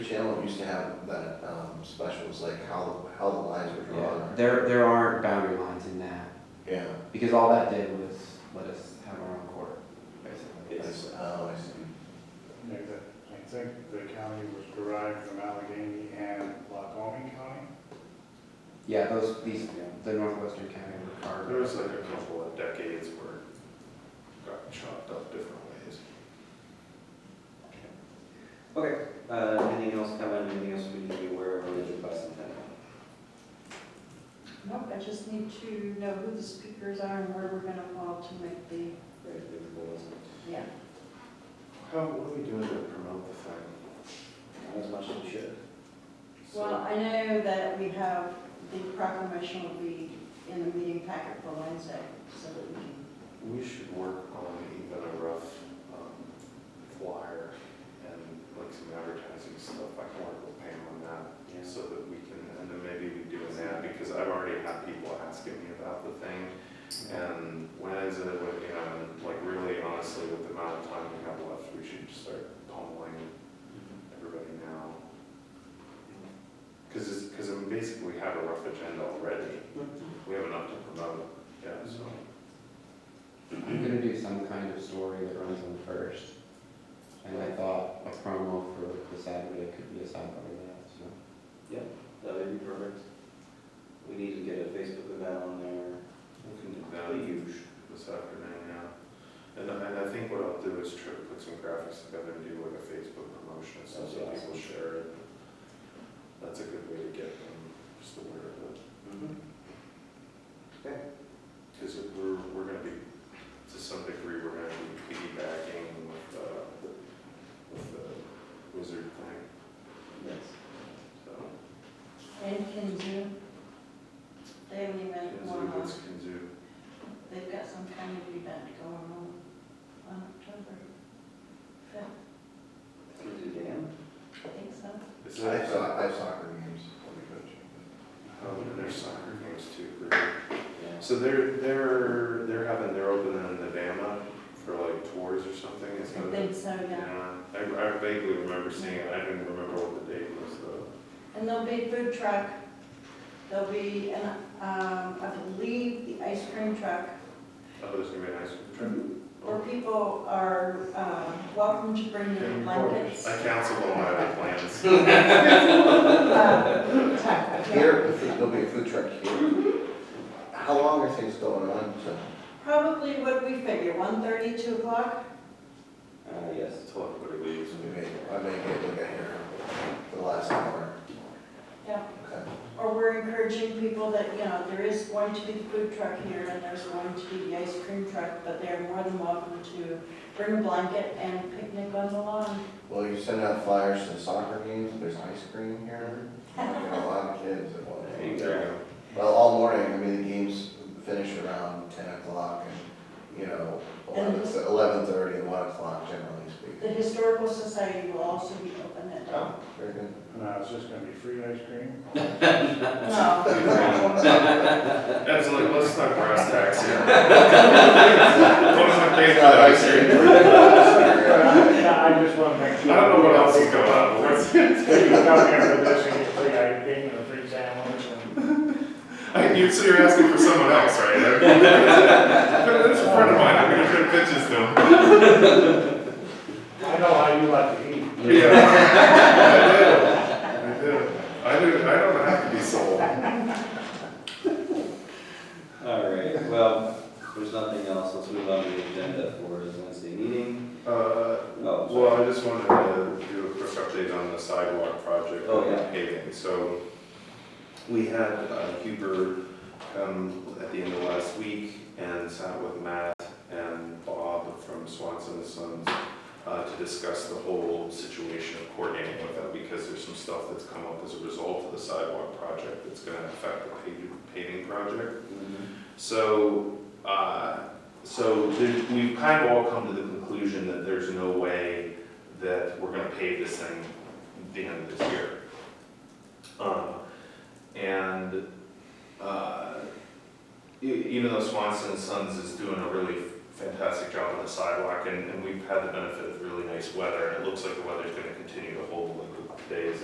Channel used to have that, um, specials, like how, how the lines were Yeah, drawn. there, there aren't boundary lines in that, Yeah, because all that did was let us have our own court, basically. that's, oh, I see. There's a- I think the county was derived from Allegheny and Lacombe County. Yeah, those, these, the Northwestern County are. There was like a couple of decades where it got chopped up different ways. Okay, uh, anything else coming, anything else we need to be aware of related to bicentennial? Nope, I just need to know who the speakers are and where we're gonna want to make the, Very difficult, isn't it? yeah. How, what are we doing to promote the fact? Not as much as we should. Well, I know that we have, the proclamation will be in the meeting packet for Wednesday, so that we can. We should work on even a rough um, flyer and like some advertising stuff. I can work with Pam on that Yeah. so that we can, and then maybe we do an ad because I've already had people asking me about the thing. And when is it, when, you know, and like really honestly, with the amount of time we have left, we should just start pummeling everybody now. Because it's, because I mean, basically we have a rough agenda already. We have enough to promote, yeah, so. I'm gonna do some kind of story that runs on the first, and I thought a promo for the Saturday could be a sidebar to that, so. That would be perfect. We need to get a Facebook event on there. We can do The that huge. this afternoon, yeah. And I, and I think what I'll do is try to put some graphics together and do like a Facebook promotion, so That'd be so awesome. people share it. That's a good way to get them just aware of it, because we're, we're gonna be, to some degree, we're gonna be piggybacking with, uh, with the wizard thing, Yes. so. And Kinzu, they haven't even had one Kinzu, on, what's Kinzu? they've got some kind of event going on on October fifth, Through the dam? I think so. Is I that- have, so- I have soccer games, I'll be coaching. uh, Oh, and there's soccer games too, really. Yeah. So they're, they're, they're having, they're opening the dam up for like tours or something, it's I gonna, think so, yeah. yeah. I, I vaguely remember seeing it, I didn't remember what the date was though. And there'll be a food truck, there'll be, an um, I believe, the ice cream truck Oh, there's gonna be an ice cream Where truck? people are um, welcome to bring their blankets. I canceled all my other plans. Um, Yeah. Here, there'll be a food truck here. How long are things going on, so? Probably what we figure, 1:30, 2 o'clock? Uh, yes. Until everybody leaves. We may, I may get like a hair for the last hour. Yeah. Okay. Or we're encouraging people that, you know, there is going to be the food truck here and there's going to be the ice cream truck, but they're more than welcome to bring a blanket and picnic on the lawn. Well, you send out flyers to soccer games, there's ice cream here. You know, A lot of kids that want There you it. go. Well, all morning, I mean, the games finish around ten o'clock and, you know, eleven, eleven thirty, one o'clock generally The speaking. Historical Society will also be open at that. Oh, very good. No, it's just gonna be free ice cream. No. That's like, let's not brass tacks here. What is my favorite ice cream? Yeah, I just wanna make I sure. don't know what else is going on, but it's- You come here for this and get free ice cream and a free sandwich and. I- you, so you're asking for someone else, right? That's a friend of mine, I'm gonna put pitches to him. I know how you like to eat. Yeah, I do. I do. I do. I don't have to be sold. All right, well, if there's nothing else, let's move on to the agenda for this Wednesday meeting. Uh, Oh, sorry. well, I just wanted to do a quick update on the sidewalk project. Oh, yeah. Paving, so we had uh, Huber come at the end of last week and sat with Matt and Bob from Swanson and Sons uh, to discuss the whole situation of coordinating with them, because there's some stuff that's come up as a result of the sidewalk project that's gonna affect the paving- paving project. Mhm. So, uh, so there- we've kind of all come to the conclusion that there's no way that we're gonna pave this thing at the end of this year. Um, And, uh, e- even though Swanson and Sons is doing a really fantastic job on the sidewalk, and, and we've had the benefit of really nice weather, and it looks like the weather's gonna continue to hold like the days